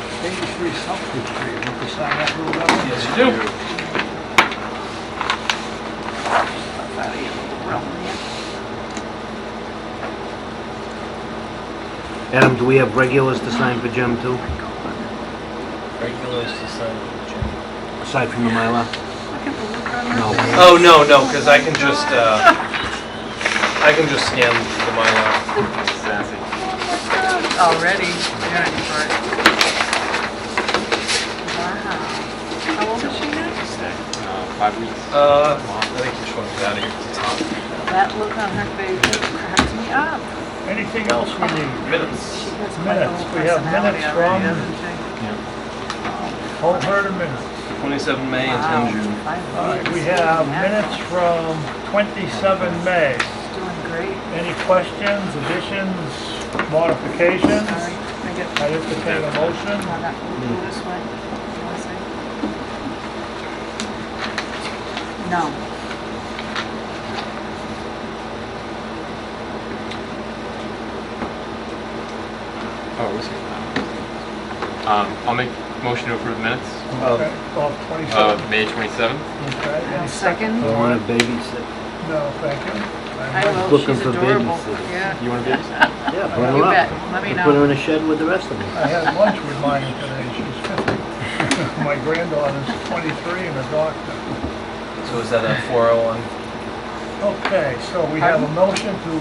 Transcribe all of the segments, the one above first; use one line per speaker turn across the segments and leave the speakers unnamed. every substitute for you, have to sign that little level?
Yes, you do.
Out of your little realm there.
Adam, do we have regulars to sign for Jim too,
Regulars to sign.
aside from the Mylar?
Look at the look on her
No.
face.
Oh, no, no, because I can just, uh, I can just scan the Mylar.
Already, yeah, for it. Wow. How old is she now?
Five weeks.
Uh, I think each one's out of here at the top.
That look on her face just cracks me up.
Anything else we need?
Minutes.
She has my
Minutes.
whole
We have
personality
minutes
already,
from-
doesn't she?
Whole herd of minutes.
27 May and 10 June.
Wow, five
All right, we
weeks.
have
Yeah,
minutes from 27 May.
she's Doing great.
Any questions, additions, modifications?
Sorry, I get,
I entertain a motion.
I got moved
Hmm.
this way. You wanna say? No.
Oh, was it? Um, I'll make motion to approve minutes
Okay, Of
of
27.
May 27th.
Okay, any second?
Second?
You want a babysit?
No, thank you.
I will,
Looking
she's
for
adorable.
babysitters.
Yeah,
You want to be?
Yeah, bring
you
her
bet.
up.
Let me
And Put her
know.
in a shed with the rest of them.
I had lunch with Lonnie today, she's 50. My granddaughter's 23 and a doctor.
So is that a 401?
Okay, so we have a motion to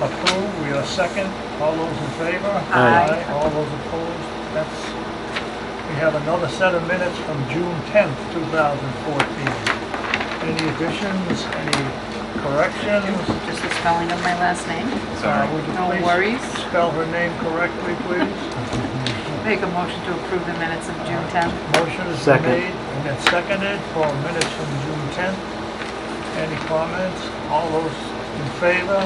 approve, we are second, all those in favor?
Aye.
All those opposed, that's, we have another set of minutes from June 10th, 2014. Any additions, any corrections?
Just the spelling of my last name.
Uh, Would you
No
please
worries.
Spell her name correctly, please.
Make a motion to approve the minutes of June 10th.
Motion is
Second.
made and then seconded for minutes from June 10th. Any comments? All those in favor?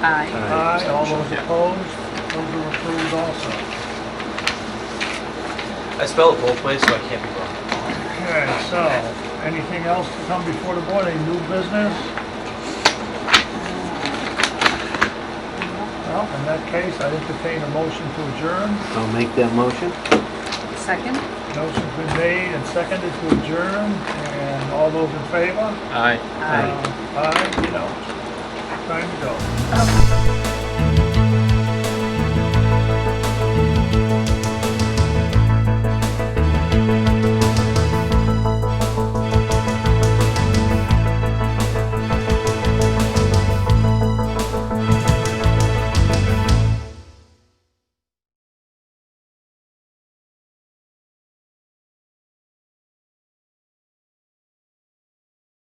Aye.
Aye. All those opposed? Those are approved also.
I spell it both ways, so I can't be wrong.
Okay, so, anything else to come before the board? Any new business? Well, in that case, I entertain a motion to adjourn.
I'll make that motion.
Second?
Motion's been made and seconded to adjourn. And all those in favor?
Aye.
Aye.
Aye, you know, time to go.